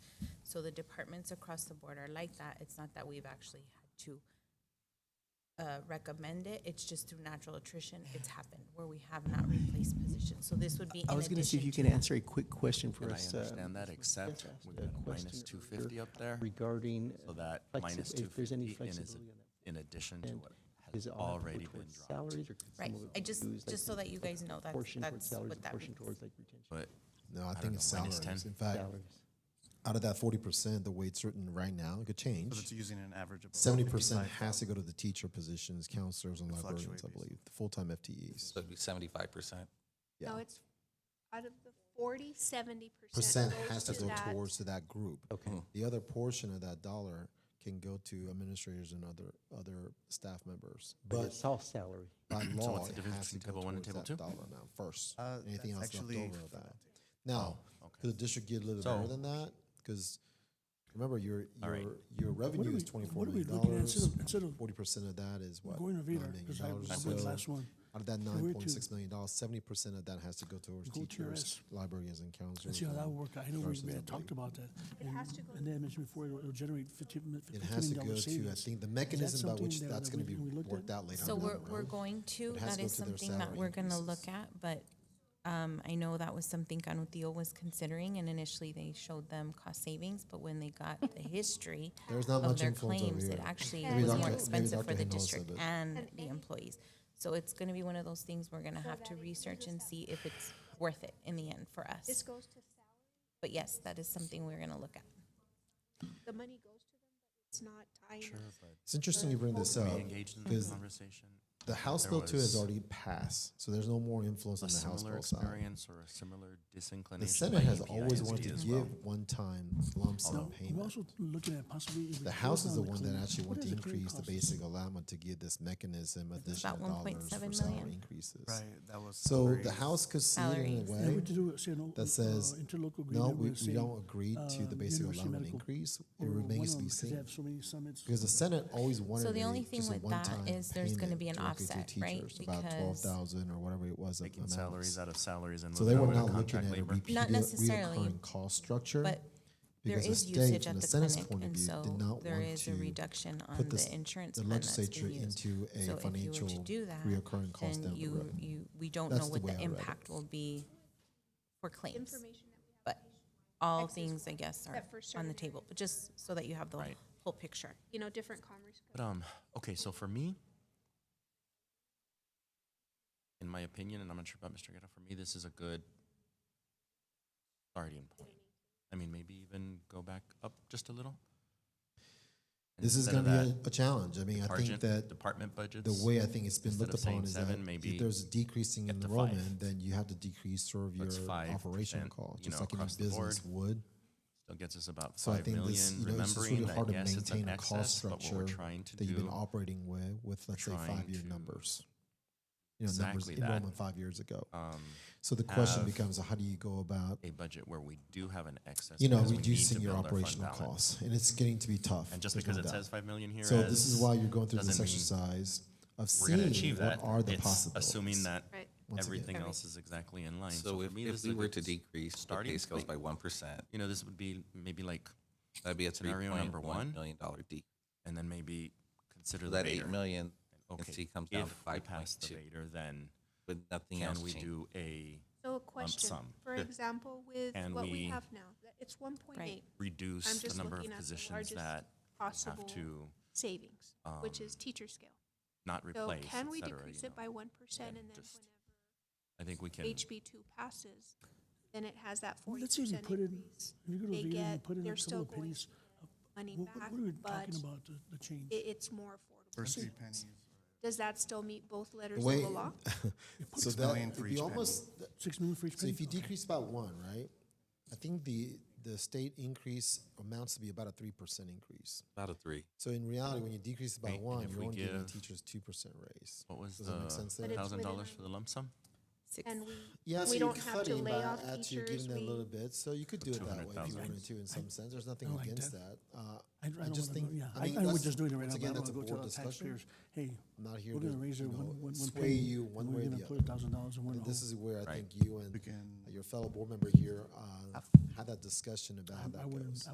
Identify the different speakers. Speaker 1: So the departments across the board are like that. It's not that we've actually had to uh, recommend it. It's just through natural attrition, it's happened where we have not replaced positions. So this would be
Speaker 2: I
Speaker 1: in
Speaker 2: was gonna see if
Speaker 1: addition
Speaker 2: you
Speaker 1: to
Speaker 2: can
Speaker 1: that.
Speaker 2: answer a quick question for
Speaker 3: And I
Speaker 2: us. uh,
Speaker 3: understand that, except
Speaker 2: asked
Speaker 3: we've
Speaker 2: a
Speaker 3: got a minus
Speaker 2: question
Speaker 3: two
Speaker 2: earlier
Speaker 3: fifty up there,
Speaker 2: Regarding.
Speaker 3: so that
Speaker 2: flexi-
Speaker 3: minus two
Speaker 2: if there's any
Speaker 3: fifty is
Speaker 2: flexibility on that.
Speaker 3: in addition to
Speaker 2: And
Speaker 3: what
Speaker 2: Is
Speaker 3: has
Speaker 2: it all have to go
Speaker 3: already been
Speaker 2: towards
Speaker 3: dropped.
Speaker 2: Salaries or could
Speaker 1: Right.
Speaker 2: some of it
Speaker 1: I
Speaker 2: be
Speaker 1: just-
Speaker 2: used, like,
Speaker 1: just so that you
Speaker 2: like,
Speaker 1: guys know, that's-
Speaker 2: Portion towards
Speaker 1: that's
Speaker 2: salaries,
Speaker 1: what
Speaker 2: and
Speaker 1: that
Speaker 2: portion
Speaker 1: means.
Speaker 2: towards like retention
Speaker 3: But
Speaker 4: No, I,
Speaker 3: don't
Speaker 4: think it's
Speaker 3: know, minus
Speaker 4: salaries.
Speaker 3: 10.
Speaker 4: In fact,
Speaker 2: salaries.
Speaker 4: out of that forty percent, the way it's written right now, it could
Speaker 5: So it's
Speaker 4: change.
Speaker 5: using an average of.
Speaker 4: Seventy percent has to go to the teacher positions, counselors, and librarians.
Speaker 5: fluctuates.
Speaker 4: I believe the full-time FTEs.
Speaker 6: So it'd be seventy-five percent.
Speaker 4: Yeah.
Speaker 7: No, it's out of the forty, seventy
Speaker 4: Percent
Speaker 7: percent
Speaker 4: has
Speaker 7: goes
Speaker 4: to
Speaker 7: to
Speaker 4: go
Speaker 7: that.
Speaker 4: towards to that group. Hmm.
Speaker 2: Okay.
Speaker 4: The other portion of that dollar can go to administrators and other other staff members.
Speaker 2: But
Speaker 4: But
Speaker 2: it's all salary.
Speaker 4: by
Speaker 3: what's
Speaker 4: law,
Speaker 3: the
Speaker 4: it
Speaker 3: difference
Speaker 4: has to
Speaker 3: between
Speaker 4: go
Speaker 3: table one and
Speaker 4: towards that
Speaker 3: table
Speaker 4: dollar amount first.
Speaker 5: Uh,
Speaker 4: Anything
Speaker 5: that's
Speaker 4: else left
Speaker 5: actually
Speaker 4: over of
Speaker 5: for
Speaker 4: that. Now, could the district get a little
Speaker 3: Oh, So-
Speaker 4: better than that? Because remember, your
Speaker 3: All
Speaker 4: your
Speaker 3: right.
Speaker 4: your revenue
Speaker 8: are
Speaker 4: is
Speaker 8: we-
Speaker 4: twenty four
Speaker 8: what are we
Speaker 4: million
Speaker 8: looking at
Speaker 4: dollars.
Speaker 8: instead of- instead of
Speaker 4: Forty percent of that is what
Speaker 8: Going to
Speaker 4: nine
Speaker 8: Vader,
Speaker 4: million
Speaker 8: because I
Speaker 4: dollars.
Speaker 8: I went
Speaker 4: So
Speaker 8: last one.
Speaker 4: Out of that
Speaker 8: So we're
Speaker 4: nine point six
Speaker 8: to-
Speaker 4: million dollars, seventy percent of that has to go towards
Speaker 8: Go to
Speaker 4: teachers,
Speaker 8: us.
Speaker 4: librarians, and
Speaker 8: Let's
Speaker 4: counselors.
Speaker 8: see how that
Speaker 4: and
Speaker 8: worked. I know we
Speaker 4: nurses,
Speaker 8: we
Speaker 4: I
Speaker 8: had talked
Speaker 4: believe.
Speaker 8: about that.
Speaker 7: It
Speaker 8: And-
Speaker 7: has to go
Speaker 8: And then I mentioned before, it'll it'll generate fifteen million
Speaker 4: It
Speaker 8: dollars
Speaker 4: has to
Speaker 8: savings.
Speaker 4: go to, I think, the mechanism by
Speaker 8: something
Speaker 4: which
Speaker 8: that-
Speaker 4: that's
Speaker 8: that
Speaker 4: gonna
Speaker 8: we-
Speaker 4: be
Speaker 8: we looked at?
Speaker 4: worked out later.
Speaker 1: So
Speaker 4: on down
Speaker 1: we're,
Speaker 4: the
Speaker 1: we're
Speaker 4: road.
Speaker 1: going to,
Speaker 4: It has
Speaker 1: that
Speaker 4: to go
Speaker 1: is
Speaker 4: to their
Speaker 1: something that
Speaker 4: salary
Speaker 1: we're gonna
Speaker 4: increases.
Speaker 1: look at, but, um, I know that was something Canutio was considering, and initially they showed them cost savings, but when they got the history
Speaker 4: There's not
Speaker 1: of
Speaker 4: much
Speaker 1: their
Speaker 4: influence over
Speaker 1: claims, it
Speaker 4: here.
Speaker 1: actually
Speaker 7: Maybe
Speaker 1: was
Speaker 7: Dr.
Speaker 1: more
Speaker 7: maybe
Speaker 1: expensive for
Speaker 4: Dr.
Speaker 1: the
Speaker 4: Hinojosa,
Speaker 1: district
Speaker 4: but-
Speaker 1: and
Speaker 7: And
Speaker 1: the
Speaker 7: any-
Speaker 1: employees. So it's gonna be one of those things we're gonna
Speaker 7: So
Speaker 1: have
Speaker 7: that
Speaker 1: to
Speaker 7: includes
Speaker 1: research
Speaker 7: the
Speaker 1: and
Speaker 7: salary.
Speaker 1: see if it's worth it in the end for
Speaker 7: This
Speaker 1: us.
Speaker 7: goes to salary,
Speaker 1: But yes, that is something we're gonna look at.
Speaker 7: the money goes to them, but it's not tying.
Speaker 3: sure,
Speaker 7: us.
Speaker 3: but
Speaker 4: It's interesting you bring this
Speaker 3: we
Speaker 4: up.
Speaker 3: engaged in this
Speaker 4: because
Speaker 3: conversation.
Speaker 4: The House
Speaker 3: There
Speaker 4: Bill Two
Speaker 3: was
Speaker 4: has already passed, so there's no more influence
Speaker 3: A
Speaker 4: on the House
Speaker 3: similar
Speaker 4: Bill side.
Speaker 3: experience or a similar
Speaker 4: The
Speaker 3: disinclination.
Speaker 4: Senate
Speaker 3: by
Speaker 4: has
Speaker 3: EPISD
Speaker 4: always wanted to
Speaker 3: as
Speaker 4: give
Speaker 3: well.
Speaker 4: one-time lump
Speaker 3: Although-
Speaker 4: sum
Speaker 8: We're
Speaker 4: payment.
Speaker 8: also looking at possibly. if
Speaker 4: The
Speaker 8: we close
Speaker 4: House is
Speaker 8: down
Speaker 4: the one that
Speaker 8: clinic,
Speaker 4: actually
Speaker 8: what
Speaker 4: wanted to
Speaker 8: does it really
Speaker 4: increase the
Speaker 8: cost?
Speaker 4: basic allowance to give this mechanism additional
Speaker 1: about
Speaker 4: dollars
Speaker 1: 1.7
Speaker 4: for
Speaker 1: million.
Speaker 4: salary increases.
Speaker 5: Right, that was.
Speaker 4: So
Speaker 5: raised.
Speaker 4: the House could see it in
Speaker 1: Salaries.
Speaker 4: a
Speaker 8: Yeah, we
Speaker 4: way
Speaker 8: had to do a, say, no,
Speaker 4: that says,
Speaker 8: uh, interlocal
Speaker 4: no,
Speaker 8: agreement
Speaker 4: we,
Speaker 8: with,
Speaker 4: we
Speaker 8: say,
Speaker 4: don't agree to the
Speaker 8: um,
Speaker 4: basic
Speaker 8: University
Speaker 4: allowance
Speaker 8: Medical
Speaker 4: increase. It
Speaker 8: or one
Speaker 4: remains
Speaker 8: of
Speaker 4: to be
Speaker 8: 'em, 'cause they
Speaker 4: seen.
Speaker 8: have so many summits.
Speaker 4: Because the Senate always wanted.
Speaker 1: So the
Speaker 4: it
Speaker 1: only thing
Speaker 4: just a
Speaker 1: with that
Speaker 4: one-time
Speaker 1: is there's gonna
Speaker 4: payment
Speaker 1: be an
Speaker 4: directly to
Speaker 1: offset, right?
Speaker 4: teachers, About
Speaker 1: Because-
Speaker 4: twelve thousand or whatever it was. of
Speaker 3: Taking
Speaker 4: amounts.
Speaker 3: salaries out of salaries and
Speaker 4: So they
Speaker 3: moving over
Speaker 4: were
Speaker 3: to
Speaker 4: not looking
Speaker 3: contract
Speaker 4: at a
Speaker 3: labor.
Speaker 4: repeated,
Speaker 1: necessarily,
Speaker 4: reoccurring cost structure.
Speaker 1: But there
Speaker 4: because the
Speaker 1: is
Speaker 4: state,
Speaker 1: usage
Speaker 4: from
Speaker 1: at
Speaker 4: the
Speaker 1: the
Speaker 4: Senate's
Speaker 1: clinic,
Speaker 4: point of
Speaker 1: and
Speaker 4: view, did
Speaker 1: so
Speaker 4: not
Speaker 1: there
Speaker 4: want
Speaker 1: is a
Speaker 4: to
Speaker 1: reduction on
Speaker 4: put this-
Speaker 1: the insurance
Speaker 4: the
Speaker 1: plan that's
Speaker 4: legislature
Speaker 1: being used.
Speaker 4: into a
Speaker 1: So if you
Speaker 4: financial
Speaker 1: were to do that,
Speaker 4: reoccurring
Speaker 1: then
Speaker 4: cost down the
Speaker 1: you,
Speaker 4: road.
Speaker 1: you, we don't know
Speaker 4: That's the
Speaker 1: what
Speaker 4: way
Speaker 1: the
Speaker 4: I read it.
Speaker 1: impact will be for claims.
Speaker 7: Information that we have.
Speaker 1: But all
Speaker 7: Excess
Speaker 1: things, I
Speaker 7: one,
Speaker 1: guess, are
Speaker 7: except for
Speaker 1: on the
Speaker 7: certain
Speaker 1: table, but just so that you have the
Speaker 3: Right.
Speaker 1: whole picture.
Speaker 7: You know, different commerce.
Speaker 3: But um, okay, so for me, in my opinion, and I'm not sure about Mr. Guerra, for me, this is a good starting point. I mean, maybe even go back up just a little.
Speaker 4: This is
Speaker 3: Instead
Speaker 4: going
Speaker 3: of
Speaker 4: to
Speaker 3: that
Speaker 4: be a- a challenge. I mean, I think
Speaker 3: department-
Speaker 4: that
Speaker 3: Department budgets.
Speaker 4: the way I think it's been
Speaker 3: instead
Speaker 4: looked
Speaker 3: of saying
Speaker 4: upon is that
Speaker 3: seven, maybe
Speaker 4: if there's a decreasing
Speaker 3: get to five.
Speaker 4: enrollment, then you have to decrease sort of your
Speaker 3: That's 5%,
Speaker 4: operational cost,
Speaker 3: you
Speaker 4: just
Speaker 3: know,
Speaker 4: like any
Speaker 3: across the board.
Speaker 4: business would.
Speaker 3: Still gets us about
Speaker 4: So I
Speaker 3: five
Speaker 4: think
Speaker 3: million,
Speaker 4: this, you know, it's just
Speaker 3: remembering
Speaker 4: really
Speaker 3: that,
Speaker 4: hard to
Speaker 3: yes, it's an
Speaker 4: maintain a cost
Speaker 3: excess, but what
Speaker 4: structure
Speaker 3: we're trying to
Speaker 4: that you've been
Speaker 3: do-
Speaker 4: operating with, with let's say
Speaker 3: trying
Speaker 4: five-year
Speaker 3: to-
Speaker 4: numbers. You know, numbers,
Speaker 3: Exactly that.
Speaker 4: enrollment five years ago.
Speaker 3: um,
Speaker 4: So the question
Speaker 3: have
Speaker 4: becomes, how do you go about,
Speaker 3: a budget where we do have an excess.
Speaker 4: you know,
Speaker 3: because we need to
Speaker 4: reducing your
Speaker 3: build our fund
Speaker 4: operational
Speaker 3: balance.
Speaker 4: costs? And it's getting to be tough.
Speaker 3: And just
Speaker 4: there's
Speaker 3: because
Speaker 4: no
Speaker 3: it
Speaker 4: doubt.
Speaker 3: says five million here,
Speaker 4: So this is
Speaker 3: as
Speaker 4: why you're going through this
Speaker 3: doesn't mean
Speaker 4: exercise of
Speaker 3: we're going to
Speaker 4: seeing
Speaker 3: achieve
Speaker 4: what
Speaker 3: that.
Speaker 4: are the
Speaker 3: it's
Speaker 4: possibilities.
Speaker 3: assuming that
Speaker 7: Right.
Speaker 4: Once again.
Speaker 3: everything else is exactly in line.
Speaker 6: So
Speaker 3: for
Speaker 6: if,
Speaker 3: me, this
Speaker 6: if
Speaker 3: is a
Speaker 6: we were
Speaker 3: good
Speaker 6: to
Speaker 3: s-
Speaker 6: decrease the
Speaker 3: starting
Speaker 6: pay scales
Speaker 3: point.
Speaker 6: by one percent,
Speaker 3: you know, this would be maybe like,
Speaker 6: that'd be a three
Speaker 3: Scenario number
Speaker 6: point one
Speaker 3: one.
Speaker 6: million dollar decrease.
Speaker 3: and then maybe consider
Speaker 6: So
Speaker 3: the
Speaker 6: that eight
Speaker 3: Vader.
Speaker 6: million,
Speaker 3: Okay,
Speaker 6: and see comes down to
Speaker 3: if we
Speaker 6: five point
Speaker 3: pass the
Speaker 6: two,
Speaker 3: Vader, then
Speaker 6: but nothing
Speaker 3: can
Speaker 6: else
Speaker 3: we
Speaker 6: changes.
Speaker 3: do a
Speaker 7: So a question,
Speaker 3: sum.
Speaker 7: for
Speaker 6: Yeah.
Speaker 7: example, with
Speaker 3: And
Speaker 7: what we
Speaker 3: we-
Speaker 7: have now, that it's one point eight.
Speaker 3: reduce
Speaker 7: I'm
Speaker 3: the
Speaker 7: just
Speaker 3: number
Speaker 7: looking
Speaker 3: of
Speaker 7: at the
Speaker 3: positions
Speaker 7: largest
Speaker 3: that have
Speaker 7: possible
Speaker 3: to
Speaker 7: savings, which is teacher scale.
Speaker 3: not
Speaker 7: So
Speaker 3: replace,
Speaker 7: can
Speaker 3: et
Speaker 7: we
Speaker 3: cetera, you
Speaker 7: decrease it
Speaker 3: know?
Speaker 7: by one percent
Speaker 3: and
Speaker 7: and then
Speaker 3: just I think we can.
Speaker 7: whenever HB two passes, then it has that
Speaker 8: Well,
Speaker 7: forty
Speaker 8: Let's say if you
Speaker 7: percent
Speaker 8: put in,
Speaker 7: increase?
Speaker 8: if you go to
Speaker 7: They
Speaker 8: Vader and
Speaker 7: get,
Speaker 8: put in a
Speaker 7: they're
Speaker 8: couple
Speaker 7: still
Speaker 8: of
Speaker 7: going
Speaker 8: pennies,
Speaker 7: money
Speaker 8: what,
Speaker 7: back,
Speaker 8: what are we
Speaker 7: but
Speaker 8: talking about, the, the change?
Speaker 7: it, it's more affordable.
Speaker 5: First three pennies.
Speaker 7: Does that still meet both letters
Speaker 4: The
Speaker 7: of
Speaker 4: way,
Speaker 7: the law?
Speaker 4: so
Speaker 5: Six
Speaker 4: that,
Speaker 5: million for
Speaker 4: if
Speaker 5: each
Speaker 4: you
Speaker 5: penny.
Speaker 4: almost,
Speaker 8: Six million for each
Speaker 4: so
Speaker 8: penny?
Speaker 4: if you
Speaker 8: Okay.
Speaker 4: decrease about one, right? I think the, the state increase amounts to be about a three percent increase.
Speaker 6: About a three.
Speaker 4: So in reality, when you decrease by
Speaker 3: Right, and
Speaker 4: one,
Speaker 3: if
Speaker 4: you're
Speaker 3: we
Speaker 4: only giving the
Speaker 3: give-
Speaker 4: teachers two percent raise.
Speaker 3: What was
Speaker 4: Does that
Speaker 3: the
Speaker 4: make sense there?
Speaker 7: But it's
Speaker 3: thousand
Speaker 7: within
Speaker 3: dollars
Speaker 7: our-
Speaker 3: for the lump sum?
Speaker 1: Six.
Speaker 7: And we,
Speaker 4: Yeah, so
Speaker 7: we
Speaker 4: you're
Speaker 7: don't have to
Speaker 4: cutting by
Speaker 7: lay off
Speaker 4: at you're
Speaker 7: teachers,
Speaker 4: giving them a little
Speaker 7: we,
Speaker 4: bit, so you could do it that way if you
Speaker 3: 200,000.
Speaker 4: wanted to. In some sense, there's nothing
Speaker 8: I like
Speaker 4: against
Speaker 8: that.
Speaker 4: that. Uh,
Speaker 8: I, I don't
Speaker 4: I
Speaker 8: wanna
Speaker 4: just
Speaker 8: go-
Speaker 4: think
Speaker 8: yeah,
Speaker 4: I
Speaker 8: I,
Speaker 4: think
Speaker 8: I
Speaker 4: that's-
Speaker 8: would just do it right
Speaker 4: once
Speaker 8: now, but
Speaker 4: again,
Speaker 8: I don't
Speaker 4: that's a
Speaker 8: wanna
Speaker 4: board
Speaker 8: go tell the
Speaker 4: discussion.
Speaker 8: taxpayers, hey,
Speaker 4: I'm not here
Speaker 8: we're gonna
Speaker 4: to,
Speaker 8: raise
Speaker 4: you
Speaker 8: it one,
Speaker 4: know,
Speaker 8: one, one
Speaker 4: sway
Speaker 8: penny,
Speaker 4: you
Speaker 8: and
Speaker 4: one
Speaker 8: we're
Speaker 4: way or
Speaker 8: gonna
Speaker 4: the
Speaker 8: put a
Speaker 4: other.
Speaker 8: thousand dollars in one hole.
Speaker 4: This is where I
Speaker 3: Right.
Speaker 4: think you and
Speaker 5: We can-
Speaker 4: your fellow board member here uh, had that discussion about how that
Speaker 8: I wouldn't-
Speaker 4: goes.